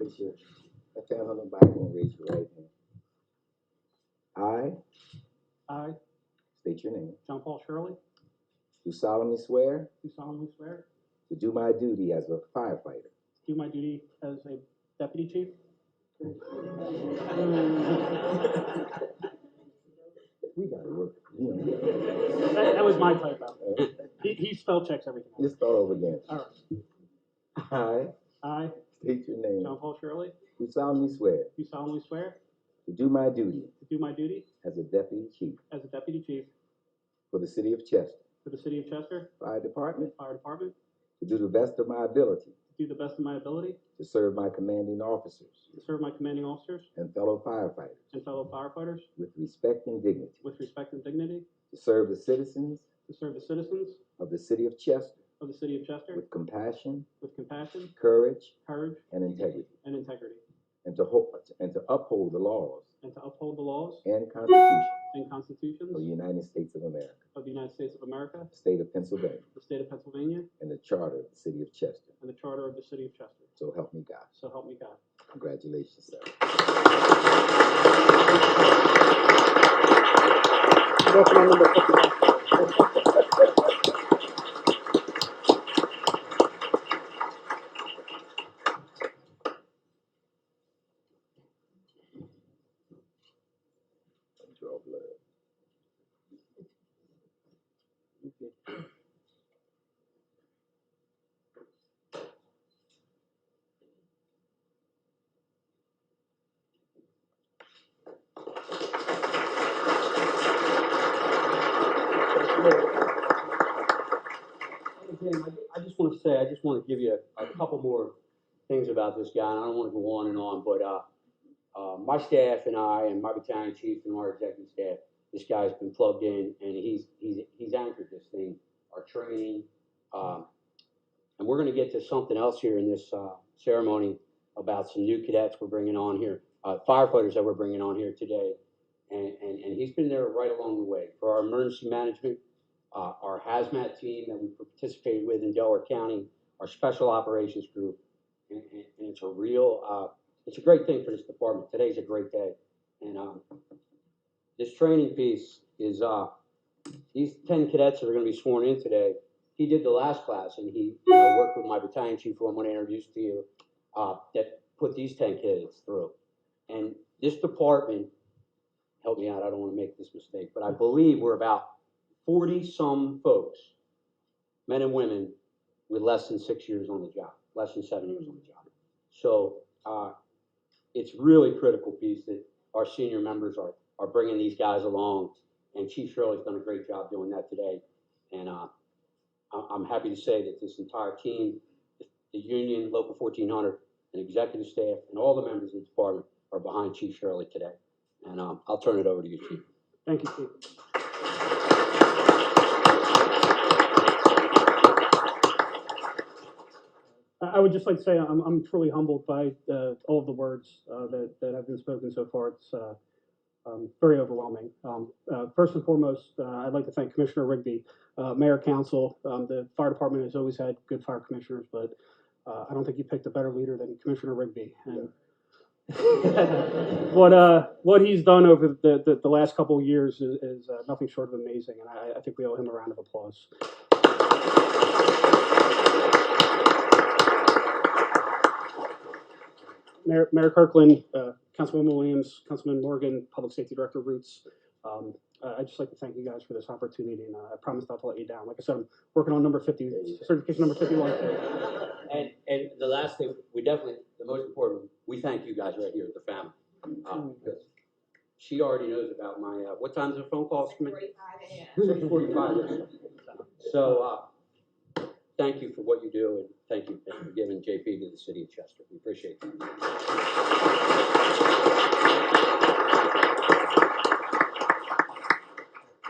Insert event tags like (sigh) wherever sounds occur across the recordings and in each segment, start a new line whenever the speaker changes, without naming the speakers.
raise your, I can't hold them back and raise your right hand. I,
I,
state your name,
John Paul Shirley,
do solemnly swear
do solemnly swear
to do my duty as a firefighter
to do my duty as a deputy chief
We gotta work, you know,
That, that was my typo. He, he spell checks everything.
(laughs) let's start over again.
All right.
I
I,
state your
John
name.
Paul Shirley,
Do solemnly swear
do solemnly swear
to do my duty
to do my duty
as a deputy chief
as a deputy chief
for the city of Chester
for the city of Chester
Fire Department
Fire Department
to do the best of my ability
to do the best of my ability
to serve my commanding officers
to serve my commanding officers
and fellow firefighters
and fellow firefighters
with respect and dignity,
with respect and dignity,
to serve the citizens
to serve the citizens
of the city of Chester
of the city of Chester
with compassion,
with compassion,
courage,
courage,
and integrity,
and integrity,
and to, ho- and to uphold the laws
and to uphold the laws
and constitution
and constitutions
of the United States of America,
of the United States of America,
the state of Pennsylvania,
the state of Pennsylvania,
and the charter of the city of Chester.
and the charter of the city of Chester.
So help me God.
So help me God.
Congratulations, sir. Draw blood.
Jim, I ju- I just want to say, I just want to give you a a couple more things about this guy, and I don't want to go on and on, but uh, uh, my staff and I and my battalion chief and our executive staff, this guy's been plugged in, and he's, he's, he's anchored this thing, our training. um, And we're going to get to something else here in this uh, ceremony about some new cadets we're bringing on here, uh, firefighters that we're bringing on here today. And, and, and he's been there right along the way for our emergency management, uh, our hazmat team that we participated with in Delaware County, our special operations group, and, and, and it's a real, uh, it's a great thing for this department. Today's a great day, and um, this training piece is uh, these ten cadets that are going to be sworn in today. He did the last class, and he you know, worked with my battalion chief, who I'm going to introduce to you, uh, that put these ten kids through. And this department, help me out, I don't want to make this mistake, but I believe we're about forty-some folks, men and women, with less than six years on the job, less than seven years on the job. So, uh, it's really critical piece that our senior members are, are bringing these guys along. And Chief Shirley's done a great job doing that today. And, uh, I'm, I'm happy to say that this entire team, the the union, Local fourteen hundred, and executive staff, and all the members of the department are behind Chief Shirley today. And, um, I'll turn it over to you, Chief.
Thank you, Chief. I I would just like to say I'm, I'm truly humbled by uh, all of the words uh, that, that have been spoken so far. It's uh, um, very overwhelming. Um, uh, first and foremost, uh, I'd like to thank Commissioner Rigby, uh, Mayor Council. Um, the fire department has always had good fire commissioners, but uh, I don't think you picked a better leader than Commissioner Rigby. And what uh, what he's done over the, the, the last couple of years is, is uh, nothing short of amazing, and I, I think we owe him a round of applause. Mayor, Mayor Kirkland, uh, Councilwoman Williams, Councilman Morgan, Public Safety Director Roots. Um, I- I'd just like to thank you guys for this opportunity, and uh, I promise not to let you down. Like I said, I'm working on number 50, certification number 51.
And, and the last thing, we definitely, the most important, we thank you guys right here at the family. uh, because She already knows about my, uh, what time's the phone call? Six forty-five. So, uh, thank you for what you do and thank you for giving JP to the city of Chester. We appreciate that.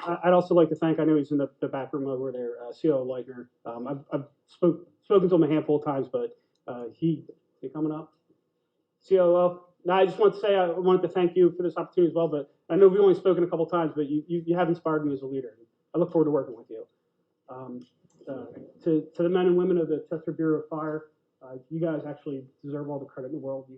I- I'd also like to thank, I know he's in the, the back room over there, uh, CO Leitner. Um, I've, I've spoke, spoken to him a handful of times, but, uh, he, he coming up? COO, no, I just want to say, I wanted to thank you for this opportunity as well, but I know we've only spoken a couple of times, but you, you, you have inspired me as a leader. I look forward to working with you. Um, uh, to, to the men and women of the Chester Bureau of Fire, uh, you guys actually deserve all the credit in the world. You